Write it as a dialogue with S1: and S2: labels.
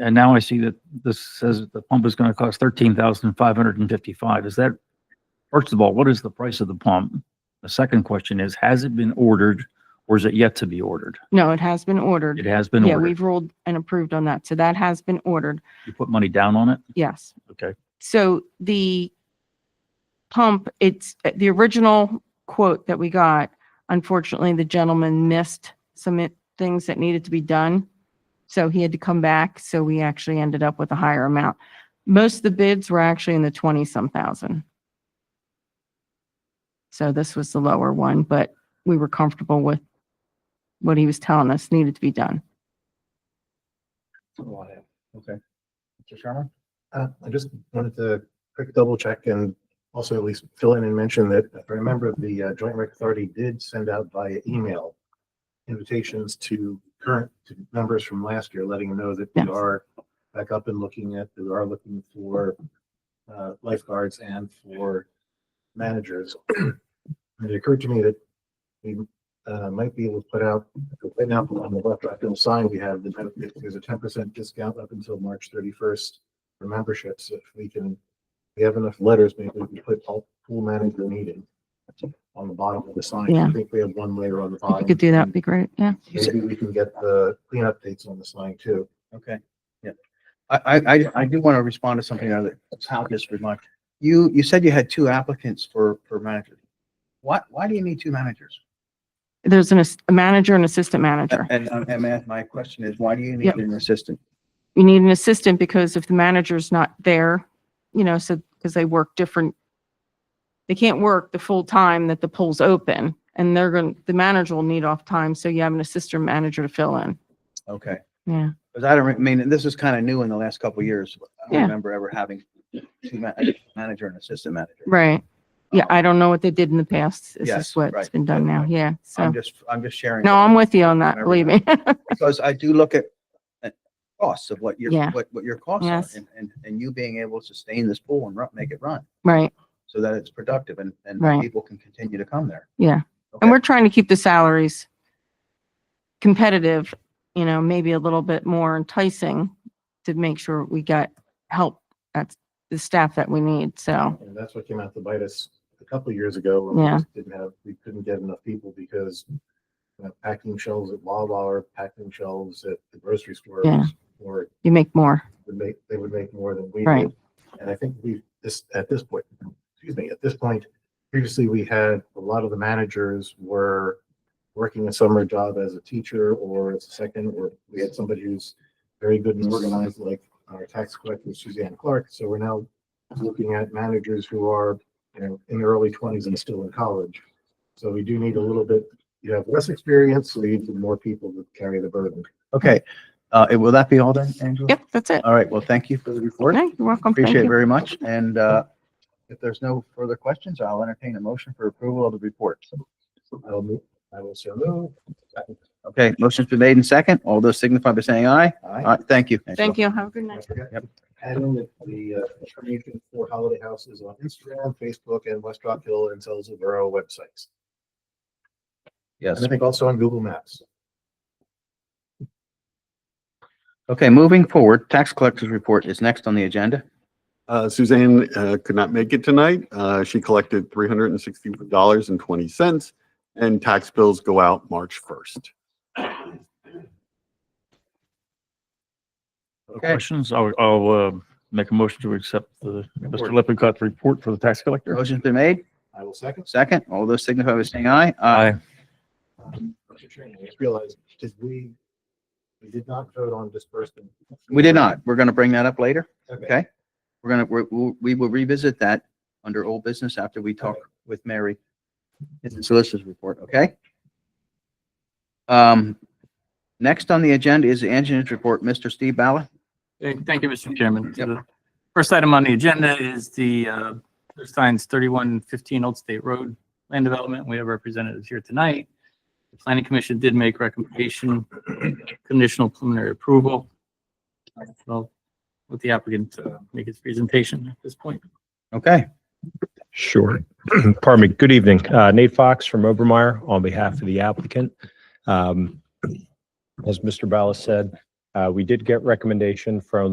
S1: And now I see that this says that the pump is gonna cost thirteen thousand five hundred and fifty-five. Is that, first of all, what is the price of the pump? The second question is, has it been ordered or is it yet to be ordered?
S2: No, it has been
S1: It
S2: ordered.
S1: has been
S2: Yeah,
S1: ordered.
S2: we've ruled and approved on that. So that has been ordered.
S1: You put money down on it?
S2: Yes.
S1: Okay.
S2: So the pump, it's uh, the original quote that we got. Unfortunately, the gentleman missed some i- things that needed to be done. So he had to come back. So we actually ended up with a higher amount. Most of the bids were actually in the 20 some thousand. So this was the lower one, but we were comfortable with what he was telling us needed to be done.
S3: Okay. Mr. Sharma? Uh, I just wanted to quick double check and also at least fill in and mention that if I remember the uh, Joint Rec Authority did send out via email invitations to current to members from last year, letting them know that we
S2: Yes.
S3: are back up and looking at, we are looking for uh, lifeguards and for managers. And it occurred to me that we uh, might be able to put out, right now on the left, I feel sign, we have the, ten- there's a ten percent discount up until March thirty-first for memberships. If we can, we have enough letters, maybe we can put all pool manager meeting on the bottom of the sign.
S2: Yeah.
S3: I think we have one layer on the
S2: If
S3: bottom.
S2: you could do that, would be great. Yeah.
S3: Maybe we can get the clean updates on the sign too.
S4: Okay, yeah. I, I, I, I do want to respond to something that Hal just remarked. You, you said you had two applicants for, for manager. Why, why do you need two managers?
S2: There's an, ass- a manager and assistant manager.
S4: And, and- and my- my question is, why do you
S2: Yep.
S4: need an assistant?
S2: You need an assistant because if the manager's not there, you know, so, because they work different, they can't work the full time that the pool's open and they're going, to the manager will need off time. So you have an assistant manager to fill in.
S4: Okay.
S2: Yeah.
S4: Because I don't, re- I mean, this is kind of new in the last couple of years. I
S2: Yeah.
S4: don't remember ever having two ma- manager and assistant manager.
S2: Right. Yeah.
S4: Um,
S2: I don't know what they did in the past. This
S4: Yes,
S2: is what's
S4: right.
S2: been done now. Yeah. So,
S4: I'm just, I'm just sharing.
S2: no, I'm with you on that.
S4: Remember
S2: Believe me.
S4: Because I do look at at costs of what your,
S2: Yeah.
S4: what, what your costs are
S2: Yes.
S4: and, and, and you being able to sustain this pool and run, make it run.
S2: Right.
S4: so that it's productive and, and
S2: Right.
S4: people can continue to come there.
S2: Yeah. And
S4: Okay.
S2: we're trying to keep the salaries competitive, you know, maybe a little bit more enticing to make sure we got help at the staff that we need. So,
S3: And that's what came out to bite us a couple of years ago. when we
S2: Yeah.
S3: just Didn't have, we couldn't get enough people because uh, packing shelves at Wawa or packing shelves at the grocery store
S2: Yeah.
S3: or
S2: you make more.
S3: would make, they would make more than we
S2: Right.
S3: did. And I think we, this, at this point, excuse me, at this point, previously we had, a lot of the managers were working a summer job as a teacher or as a second, or we had somebody who's very good and organized, like our tax collector Suzanne Clark. So we're now looking at managers who are, you know, in their early twenties and still in college. So we do need a little bit, you have less experience, so you need more people to carry the burden.
S4: Okay, uh, it- will that be all then, Angela?
S2: Yep, that's it.
S4: All right, well, thank you for the report.
S2: No, you're welcome. Thank
S4: Appreciate it
S2: you.
S4: very much. And, uh, if there's no further questions, I'll entertain a motion for approval of the report.
S3: I'll, move- I will so move.
S4: Okay, motion's been made in second. All those signify by saying aye.
S3: Aye.
S4: All right, thank you.
S2: Thank you. Have a good
S3: I
S2: night.
S3: forgot
S4: Yep.
S3: to Add in that the uh, information for Holiday House is on Instagram, Facebook, and West Rock Hill and Salisbury websites.
S4: Yes.
S3: And I think also on Google Maps.
S4: Okay, moving forward, tax collector's report is next on the agenda.
S5: Uh, Suzanne, uh, could not make it tonight. Uh, she collected three hundred and sixty dollars and twenty cents and tax bills go out March first.
S4: Okay,
S1: Questions? I'll, I'll, uh, make a motion to accept the, Mr. Lippincott report for the tax collector.
S4: motion's been made,
S3: I will second.
S4: second. All those signify by saying aye.
S1: Aye.
S3: Um, Mr. Chairman, I just realized, did we, we did not vote on disbursement.
S4: We did not. We're going to bring that up later.
S3: Okay.
S4: Okay, we're gonna, we're, we'll- we will revisit that under old business after we talk with Mary in the solicitor's report, okay? Um, next on the agenda is the engineer's report, Mr. Steve Ballard.
S6: Uh, Thank you, Mr. Chairman.
S4: Yep.
S6: The First item on the agenda is the uh, signs 3115 Old State Road Land Development. We have representatives here tonight. The Planning Commission did make recommendation, conditional preliminary approval. So let the applicant uh, make his presentation at this point.
S4: Okay,
S7: Sure. Pardon me. Good evening. Uh, Nate Fox from Obermeyer on behalf of the applicant. Um, As Mr. Ballas said, Uh, we did get recommendation from